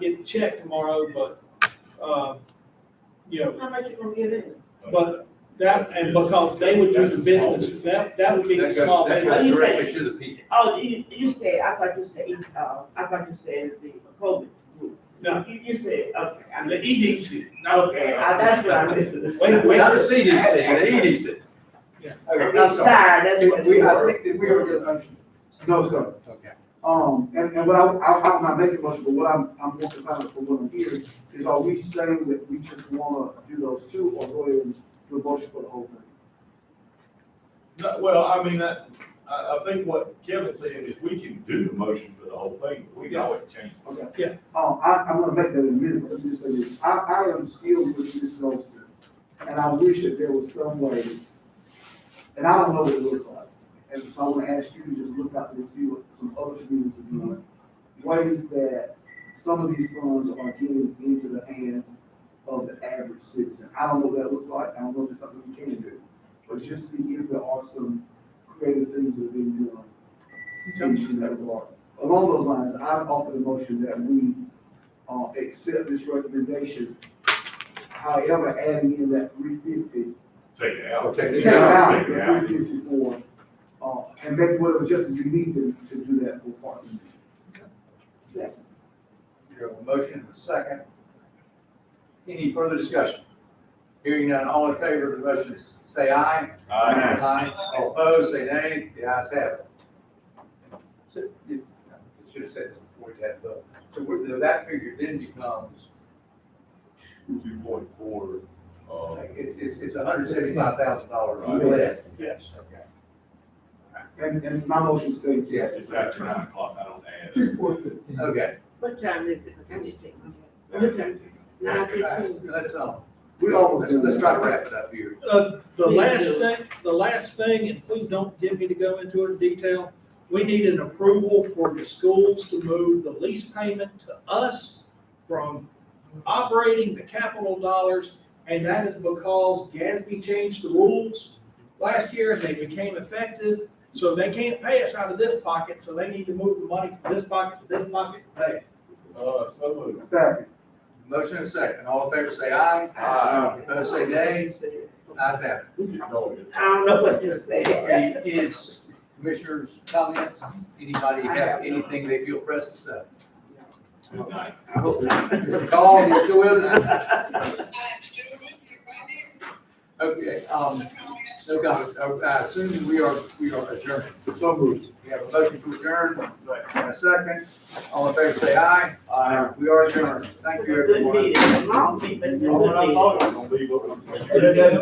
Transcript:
the check tomorrow, but, uh, you know, How much you gonna give it? but that, and because they would do the business, that, that would be the small That goes business. directly to the people. Oh, you, you said, I thought you said, uh, I thought you said the COVID group. No. You, you said, okay, I The E mean, EDC, no, okay, I- that's what I listened to. Wait, wait. Not the CDC, the E EDC. Okay, I'm sorry. Tired, that's what. it We, I was. think that we are just understand. No, sir. Okay. Um, and, and what I, I, I'm not making much, but what I'm, I'm more concerned for what I'm hearing is are we saying that we just wanna do those two or go ahead and do a motion for the whole thing? No, well, I mean, I, I, I think what Kevin's saying is we can do the motion for the whole thing, but we can always change. it. Okay. Yeah. Um, I, I'm gonna make that in a minute, but let me just say this, I, I am still with Ms. Nelson, and I wish that there was some way, and I don't know what it looks like, and so I wanna ask you to just look out there and see what some other communities are doing. Ways that some of these funds are getting into the hands of the average citizen, I don't know what that looks like, I don't know if it's something we can do, but just see if there are some creative things that are being done in that regard. Along those lines, I offer the motion that we, uh, accept this recommendation. However, adding in that three fifty, Take it out. Take take it it out, Take it the out. three fifty-four, uh, and make whatever adjustments you need to, to do that for partners. You have a motion and a second. Any further discussion? Hearing none, all in favor of the motion, say aye. Aye. Aye. All opposed, say nay. The ayes have it. So, you- I Should have said this before we had a vote. So we're- that figure then becomes, Two point four, uh, like, it's, it's, it's hundred seventy-five thousand dollars Right. less. yes. Okay. And, and my motion states. Yeah. it's after nine o'clock, I don't add. Two four fifty. Okay. What time is it? I need to take my- What it. time? Nine fifteen. Let's, um, We let's, always do let's try to that. wrap it up here. Uh, the last thing, the last thing, and please don't get me to go into it in detail, we need an approval for the schools to move the lease payment to us from operating the capital dollars, and that is because Gatsby changed the rules last year, and they became effective, so they can't pay us out of this pocket, so they need to move the money from this pocket to this pocket, to pay. Uh, so moved. Second. Motion and second. All in favor, say aye. Aye. Opposed, say nay. Ayes have You know it's- I don't know what you said. it. Any is commissioners' comments? Anybody have anything they feel pressed to say? Good night. Mr. Call, Mr. Willis? Okay, um, no comments. Uh, I assume we are, we are adjourned. So moved. We have a motion to adjourn and a second. All in favor, say aye. Aye. We are adjourned. Thank you, Good everyone. meeting. Long meeting, but good Oh, and I meeting. thought it was gonna be, but.